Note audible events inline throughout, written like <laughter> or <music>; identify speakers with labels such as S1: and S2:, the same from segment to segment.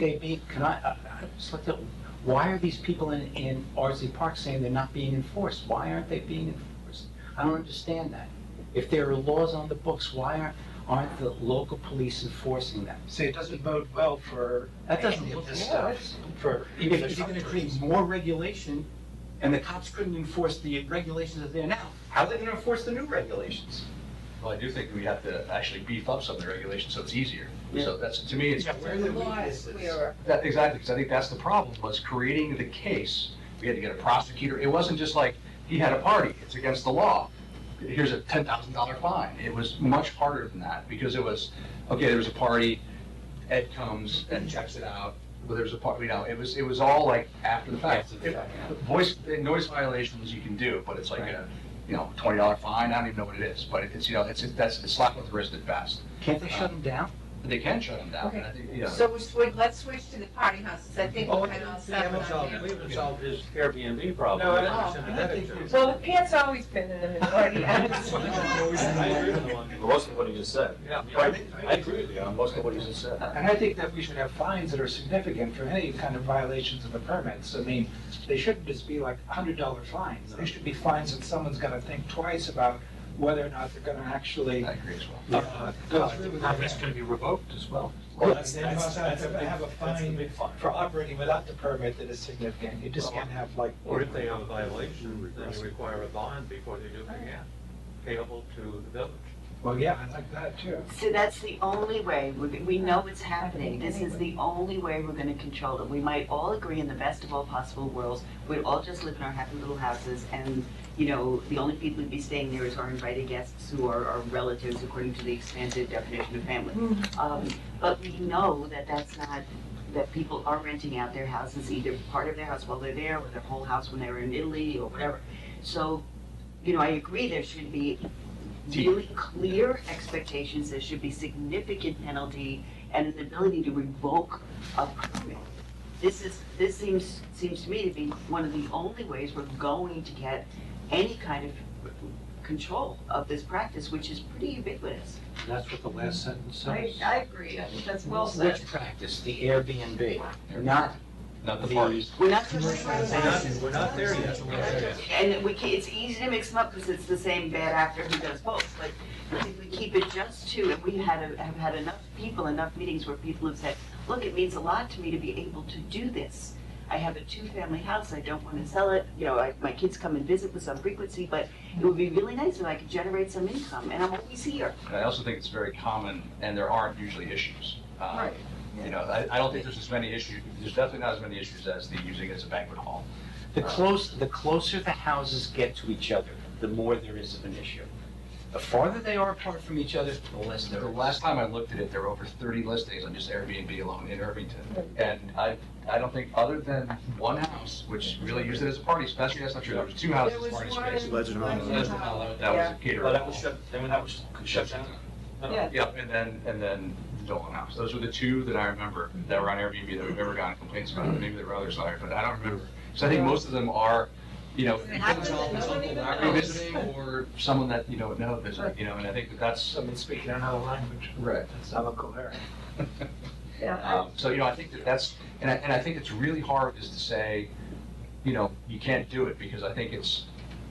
S1: they be, can I, I I just looked at, why are these people in, in RZ Park saying they're not being enforced? Why aren't they being enforced? I don't understand that. If there are laws on the books, why aren't, aren't the local police enforcing them?
S2: See, it doesn't bode well for
S1: That doesn't
S2: any of
S1: look
S2: this
S1: well.
S2: stuff, for
S1: If
S2: even the
S1: if you're gonna
S2: shop
S1: create
S2: owners.
S1: more regulation, and the cops couldn't enforce the regulations that are there now, how are they gonna enforce the new regulations?
S3: Well, I do think we have to actually beef up some of the regulations so it's easier.
S1: Yeah.
S3: So that's, to me, it's,
S2: Yeah,
S3: that,
S2: where
S4: The
S2: the
S4: law
S2: weakness
S4: is
S2: is.
S4: clearer.
S3: exactly, because I think that's the problem, was creating the case. We had to get a prosecutor. It wasn't just like, he had a party, it's against the law. Here's a ten thousand dollar fine. It was much harder than that, because it was, okay, there was a party, Ed comes and checks it out, but there was a party, you know, it was, it was all like after the fact.
S1: After the fact, yeah.
S3: It- Voice, eh, noise violations you can do, but it's like
S1: Right.
S3: a, you know, twenty dollar fine, I don't even know what it is, but it's, you know, it's, that's, it's slap with the wrist at best.
S1: Can't they shut them down?
S3: They can shut them down,
S4: Okay.
S3: and I think, yeah.
S4: So we switch, let's switch to the party houses, I think
S5: Oh,
S4: we
S5: we
S4: had on
S5: haven't solved, we
S4: seven.
S5: haven't solved his Airbnb problem.
S2: No, I
S4: Oh,
S2: don't
S4: I
S2: understand that. actually.
S4: Well, the pants always been in the
S1: <laughs>
S4: minority.
S5: I agree with him.
S6: Most of what he just said.
S2: Yeah,
S6: I
S2: I
S6: agree-
S2: think-
S6: I agree with you on most of what he just said.
S5: I
S2: And I think that we should have fines that are significant for any kind of violations of the permits. I mean, they shouldn't just be like hundred dollar fines. They should be fines that someone's gonna think twice about whether or not they're gonna actually.
S3: I agree as well.
S2: uh, go through with
S5: Permit's
S2: it.
S5: gonna be revoked as well.
S2: Well,
S6: Well,
S2: that's,
S6: that's-
S2: they must
S6: that's-
S2: have to have a
S6: that's the
S2: fine
S6: big fine.
S2: for operating without the permit that is significant. You just can't have like.
S5: Or if they have a violation, then you require a bond before they do it again, payable to the village.
S2: Well, yeah, I like that too.
S7: So that's the only way, we we know it's happening, this is the only way we're gonna control it. We might all agree in the best of all possible worlds, we'd all just live in our happy little houses and, you know, the only people who'd be staying there is our invited guests who are our relatives according to the expanded definition of family. Um, But we know that that's not, that people are renting out their houses, either part of their house while they're there, or their whole house when they were in Italy or whatever. So, you know, I agree there should be really clear expectations, there should be significant penalty and an ability to revoke a permit. This is, this seems, seems to me to be one of the only ways we're going to get any kind of control of this practice, which is pretty ubiquitous.
S5: That's what the last sentence
S4: I, I agree, I think that's well said.
S1: Which practice, the Airbnb, not
S3: Not the
S1: The-
S3: parties.
S7: We're not just.
S5: We're not, we're not there yet.
S7: And we can, it's easy to mix them up because it's the same bad actor who does both, but if we keep it just to, and we had, a- have had enough people, enough meetings where people have said, look, it means a lot to me to be able to do this. I have a two-family house, I don't want to sell it, you know, I, my kids come and visit with some frequency, but it would be really nice if I could generate some income, and I'm always here.
S3: And I also think it's very common, and there aren't usually issues. Um,
S7: Right.
S3: You know, I, I don't think there's as many issues, there's definitely not as many issues as the using it as a banquet hall.
S1: The close, the closer the houses get to each other, the more there is of an issue. The farther they are apart from each other, the less
S3: The
S1: there is.
S3: last time I looked at it, there were over thirty listings on just Airbnb alone in Irvington. And I, I don't think, other than one house, which really used it as a party, especially, that's not true, there was two houses, as party space.
S6: Legend one-
S3: That was a caterer.
S6: But
S5: Oh,
S6: that was shut, I mean, that was shut down.
S4: Yeah.
S3: Yep, and then, and then the Dolan House. Those were the two that I remember that were on Airbnb that we've ever gotten complaints about. Maybe there were others, Larry, but I don't remember. So I think most of them are, you know,
S4: It happens that no one even
S3: not
S4: knows.
S3: revisiting or someone that you don't know visiting, you know, and I think that that's.
S2: I mean, speaking another language,
S3: Right.
S2: that's not a coherent.
S4: Yeah,
S3: Um, So, you know, I think that that's, and I, and I think it's really hard is to say, you know, you can't do it, because I think it's,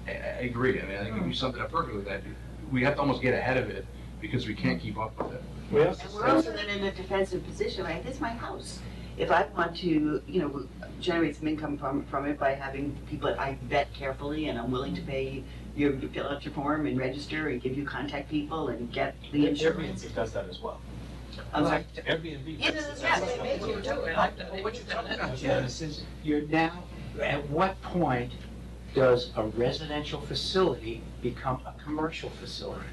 S3: I, I agree. I mean, I think
S4: Mm.
S3: you summed it up perfectly, that we have to almost get ahead of it, because we can't keep up with it.
S5: We have
S7: And we're also then in a defensive position, like, this is my house. If I want to, you know, generate some income from, from it by having people that I vet carefully and I'm willing to pay, you you fill out your form and register and give you contact people and get the insurance.
S6: Airbnb does that as well.
S7: I'm sorry.
S5: Airbnb.
S7: Yeah, this is- yeah, they make you do it. I-
S4: What you talking about?
S1: This is, you're now, at what point does a residential facility become a commercial facility?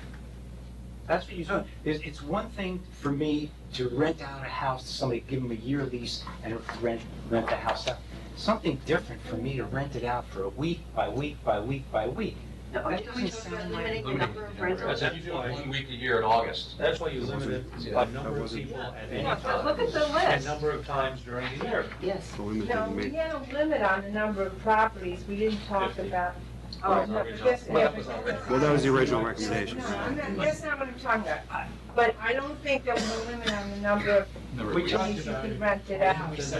S1: That's what you're talking, it's, it's one thing for me to rent out a house to somebody, give them a year lease and rent, rent the house out. Something different for me to rent it out for a week by week by week by week.
S7: No, Are you
S1: That
S7: talking
S1: doesn't
S7: about
S1: sound like
S7: limiting the
S3: limiting
S7: number of
S3: the number of
S7: rentals?
S3: That's if you do it one week a year in August.
S5: That's why you limit it by number of people at any
S4: Yeah, but look
S5: time,
S4: at the
S5: and
S4: list.
S5: number of times during the year.
S7: Yes.
S8: So we may
S4: No,
S8: take the
S4: we had a limit on the number of properties, we didn't talk
S5: Fifty.
S4: about, Oh, no, but that's-
S5: Well,
S4: yeah,
S5: that was
S4: but-
S5: already-
S8: Well, that was the original recommendation.
S4: No, I'm not- that's not what I'm talking about. I- But I don't think that we're limited on the number of
S3: Never-
S2: We
S4: days
S2: talked
S4: you
S2: about
S4: could
S2: it.
S4: rent it out.